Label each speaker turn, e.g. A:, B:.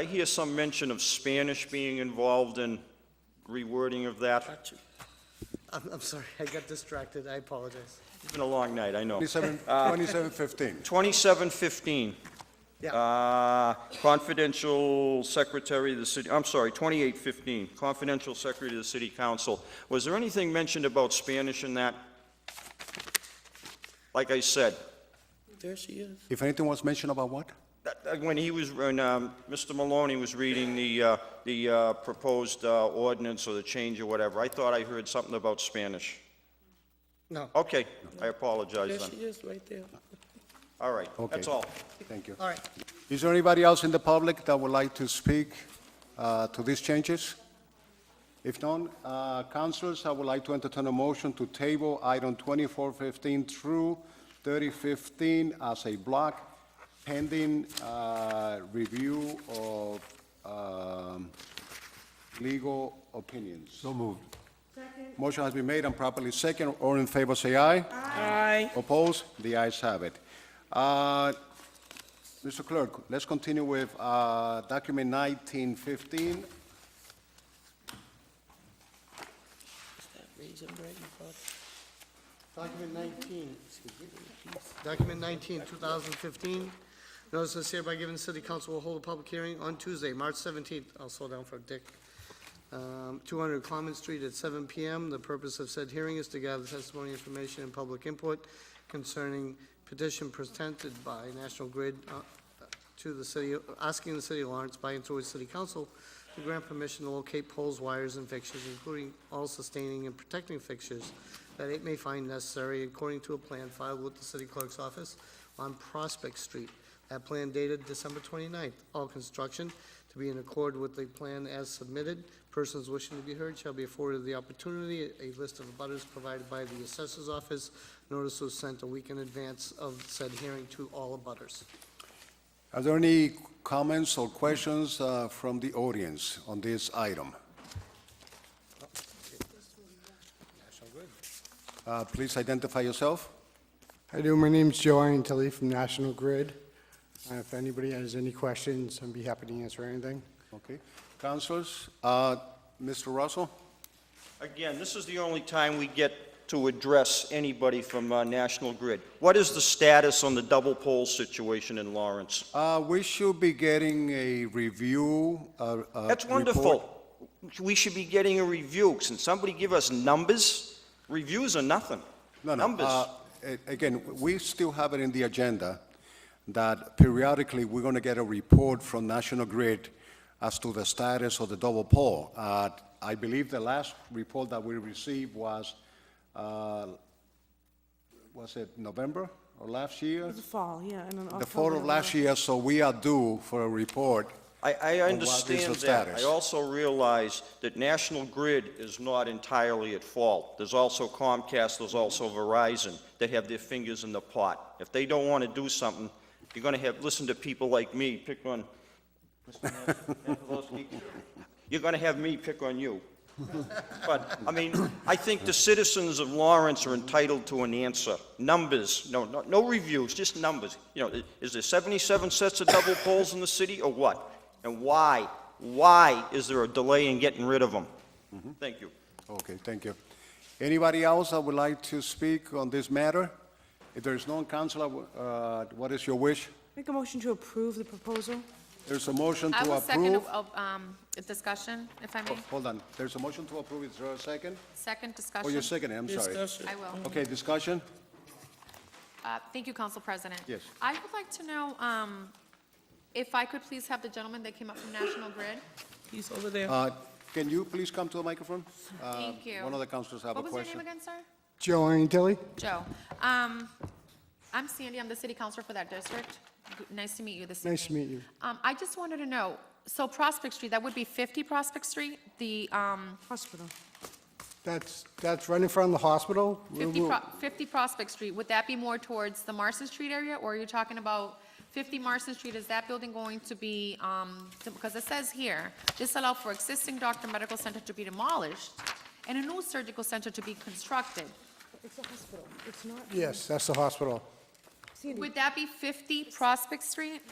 A: I hear some mention of Spanish being involved in rewording of that.
B: Got you. I'm, I'm sorry, I got distracted, I apologize.
A: It's been a long night, I know.
C: 27, 2715.
A: 2715,
B: Yeah,
A: uh, confidential secretary of the city, I'm sorry, 2815, confidential secretary of the city council. Was there anything mentioned about Spanish in that? Like I said,
B: there she is.
C: If anything was mentioned about what?
A: that- that when he was, when um, Mr. Maloney was reading the, uh, the uh, proposed uh, ordinance or the change or whatever, I thought I heard something about Spanish.
B: No,
A: Okay, I
B: there
A: apologize
B: she
A: then.
B: is, right there.
A: All right,
C: Okay.
A: that's all.
C: Thank you.
B: All right,
C: Is there anybody else in the public that would like to speak uh, to these changes? If none, uh, councilors, I would like to entertain a motion to table item 2415 through 3015 as a block pending uh, review of um, legal opinions. So moved. Motion has been made and properly second. All in favor, say aye. Aye. Opposed? The ayes have it. Uh, Mr. Clerk, let's continue with uh, document 1915.
B: Is that raisin bread you bought?
D: Document 19, document 19, 2015, notice is hereby given, city council will hold a public hearing on Tuesday, March 17th, I'll slow down for Dick, Um, 200 Clement Street at 7 PM. The purpose of said hearing is to gather testimony, information, and public input concerning petition presented by National Grid uh, to the city, asking the city of Lawrence by and through its city council to grant permission to locate poles, wires, and fixtures, including all sustaining and protecting fixtures that it may find necessary according to a plan filed with the city clerk's office on Prospect Street. That plan dated December 29th. All construction to be in accord with the plan as submitted. Persons wishing to be heard shall be afforded the opportunity. A list of abutters provided by the assessor's office. Notice was sent a week in advance of said hearing to all abutters.
C: Are there any comments or questions uh, from the audience on this item? Uh, Please identify yourself.
E: Hi, do. My name's Joe Antilli from National Grid. Uh, If anybody has any questions, I'd be happy to answer anything.
C: Okay. Councilors, uh, Mr. Russell?
A: Again, this is the only time we get to address anybody from uh, National Grid. What is the status on the double pole situation in Lawrence?
C: Uh, We should be getting a review. uh, uh,
A: That's
C: report.
A: wonderful. We should be getting a review. Can somebody give us numbers? Reviews are nothing.
C: No, no.
A: Numbers.
C: uh, a- Again, we still have it in the agenda that periodically, we're going to get a report from National Grid as to the status of the double pole. Uh, I believe the last report that we received was, uh, was it November or last year?
F: The fall, yeah, and then October.
C: The fall of last year, so we are due for a report.
A: I, I
C: the
A: understand that. I
C: status?
A: also realize that National Grid is not entirely at fault. There's also Comcast, there's also Verizon that have their fingers in the pot. If they don't want to do something, you're going to have, listen to people like me pick on, Mr. Mazeloski. you're going to have me pick on you. But, I mean, I think the citizens of Lawrence are entitled to an answer. Numbers, no, no, no reviews, just numbers. You know, is there 77 sets of double poles in the city, or what? And why, why is there a delay in getting rid of them? Thank you.
C: Okay, thank you. Anybody else that would like to speak on this matter? If there is none, Counselor, uh, what is your wish?
F: Make a motion to approve the proposal.
C: There's a motion to
G: I
C: approve. Oh.
G: will second, oh, um, discussion, if I may,
C: Hold on, there's a motion to approve, is there a second?
G: second
C: Oh, you're
G: discussion.
C: seconding, I'm sorry.
B: Discussion.
G: I will.
C: Okay, discussion?
G: Uh, Thank you, Council President.
C: Yes.
G: I would like to know um, if I could please have the gentleman that came up from National Grid.
B: He's over there.
C: Uh, Can you please come to the microphone? Uh,
G: Thank you.
C: One of the councilors have a
G: What was your
C: question.
G: name again, sir?
E: Joe Antilli?
G: Joe. Um, I'm Sandy, I'm the city councilor for that district. G- Nice to meet you this evening.
E: Nice to meet you.
G: Um, I just wanted to know, so Prospect Street, that would be 50 Prospect Street? The um,
F: Hospital.
E: That's, that's right in front of the hospital.
G: 50
E: We'll-
G: Pro- 50 Prospect Street, would that be more towards the Marston Street area? Or are you talking about 50 Marston Street, is that building going to be, um, to- because it says here, this allow for existing doctor medical center to be demolished and a new surgical center to be constructed.
F: It's a hospital. It's not.
E: Yes, that's the hospital.
F: Sandy,
G: Would that be 50 Prospect Street?